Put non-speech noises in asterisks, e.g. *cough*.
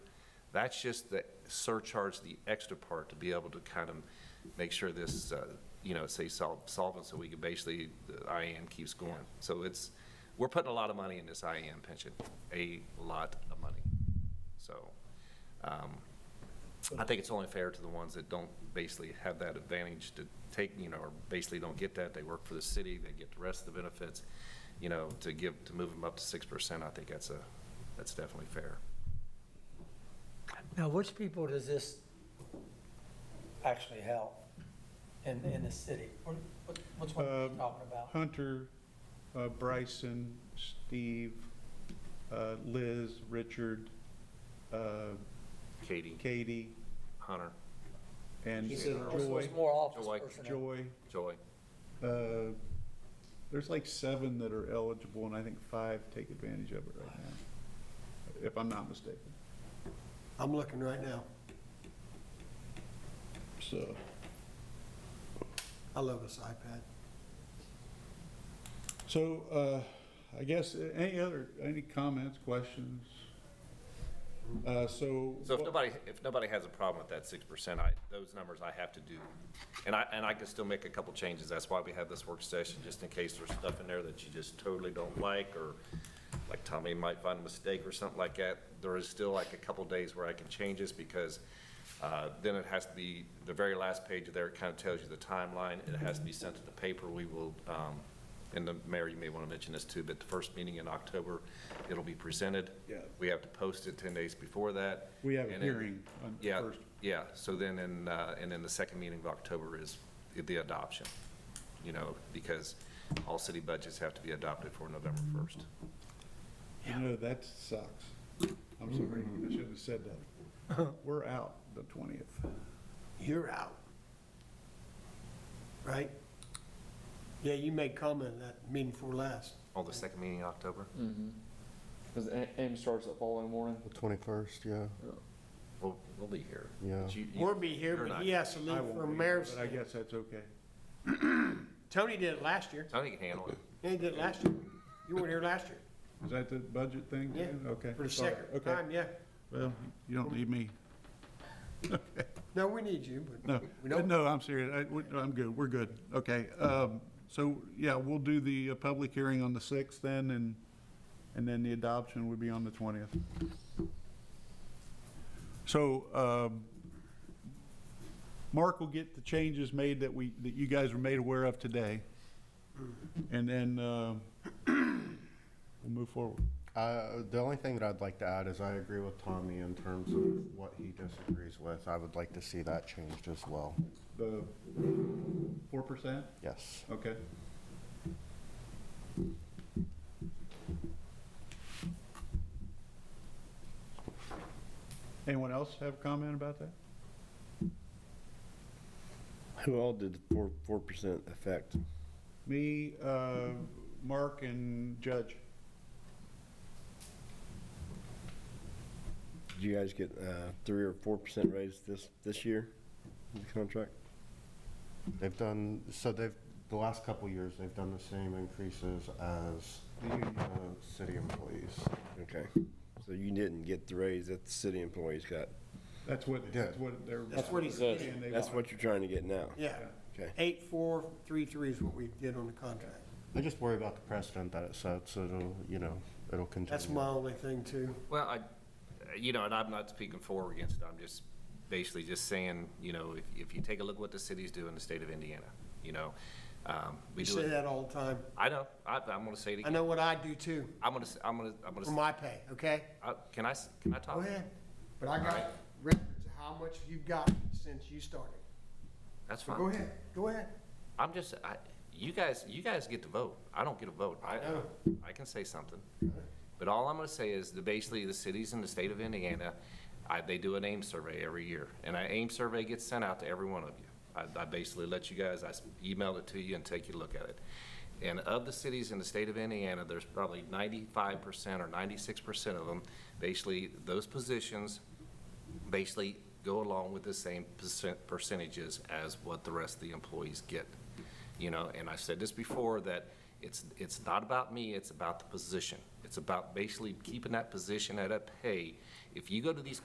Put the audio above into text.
That's just the surcharge, the extra part to be able to kind of make sure this, uh, you know, say sol- solvent, so we can basically, the IAM keeps going. So it's, we're putting a lot of money in this IAM pension, a lot of money. So um, I think it's only fair to the ones that don't basically have that advantage to take, you know, or basically don't get that. They work for the city, they get the rest of the benefits, you know, to give, to move them up to 6%. I think that's a, that's definitely fair. Now, which people does this actually help in, in the city? What- what- What's one we're Um, talking about? Hunter, uh, Bryson, Steve, uh, Liz, Richard, uh, Katie, Katie, Hunter, and He said What's- Joy. what's more office Joy. personnel? Joy. Joy. Uh, There's like seven that are eligible, and I think five take advantage of it right now, if I'm not mistaken. I'm looking right now. So, I love this iPad. so uh, I guess, uh, any other, any comments, questions? Uh, So. So if what- nobody, if nobody has a problem with that six percent, I, those numbers I have to do. And I, and I can still make a couple changes, that's why we have this work session, just in case there's stuff in there that you just totally don't like, or like Tommy might find a mistake or something like that. There is still like a couple days where I can change this, because, uh, then it has to be, the very last page of there, it kind of tells you the timeline, it has to be sent to the paper, we will, um, and the mayor, you may want to mention this too, but the first meeting in October, it'll be presented. Yeah. We have to post it ten days before that. We have a And then- hearing on the Yeah, first. yeah, so then in, uh, and then the second meeting of October is the adoption, you know, because all city budgets have to be adopted for November first. You know, that sucks. I'm sorry, I shouldn't have said *laughs* that. We're out the 20th. You're out. Right? Yeah, you made comment at that meeting before last. Oh, the second meeting in October? Because AIM starts the following morning. The twenty-first, yeah. We'll, we'll be here. Yeah. But you- you- We'll be here, you're but not. he has to I leave won't for be here, mayor's. But I guess that's okay. Tony did it last year. Tony can handle it. Yeah, He did it last year. You weren't here last year. Is that the budget thing? Yeah. Dan? Okay. For the sorry. second Okay. time, yeah. Well, you don't need me. No, we need you, but No, we don't. no, I'm serious. I, we- I'm good. We're good. Okay. Um, so, yeah, we'll do the uh, public hearing on the 6th then, and, and then the adoption would be on the 20th. So, um, Mark will get the changes made that we, that you guys were made aware of today. And then, um, we'll move forward. Uh, the only thing that I'd like to add is I agree with Tommy in terms of what he disagrees with. I would like to see that changed as well. The 4%? Yes. Okay. Anyone else have a comment about that? *coughs* Who all did four, four percent effect? Me, uh, Mark, and Judge. Did you guys get, uh, three or four percent raise this, this year in the contract? They've done, so they've, the last couple of years, they've done the same increases as the uh, city employees. Okay, so you didn't get the raise that the city employees got. That's what, that's Yeah. what they're. That's what he said. saying they That's want. what you're trying to get now. Yeah. Okay. Eight, four, three, three is what we did on the contract. I just worry about the precedent that it sets. It'll, you know, it'll continue. That's my only thing too. Well, I, you know, and I'm not speaking for or against it, I'm just basically just saying, you know, if, if you take a look what the cities do in the state of Indiana, you know, um, we You do say it. that all the time. I know, I, I'm gonna say it I again, know what I do too, I'm gonna, s- I'm gonna, I'm gonna, for s- my pay, okay? I- can I, s- can I talk? Go ahead. But I got records of how much you've gotten since you started. That's fine. Go ahead, go ahead. I'm just, I, you guys, you guys get to vote. I don't get a vote. I, know. I can say something. But all I'm gonna say is that basically the cities in the state of Indiana, I, they do an AIM survey every year. And an AIM survey gets sent out to every one of you. I, I basically let you guys, I s- emailed it to you and take you a look at it. And of the cities in the state of Indiana, there's probably ninety-five percent or ninety-six percent of them, basically, those positions basically go along with the same percent, percentages as what the rest of the employees get. You know, and I've said this before, that it's, it's not about me, it's about the position. It's about basically keeping that position at a pay. If you go to these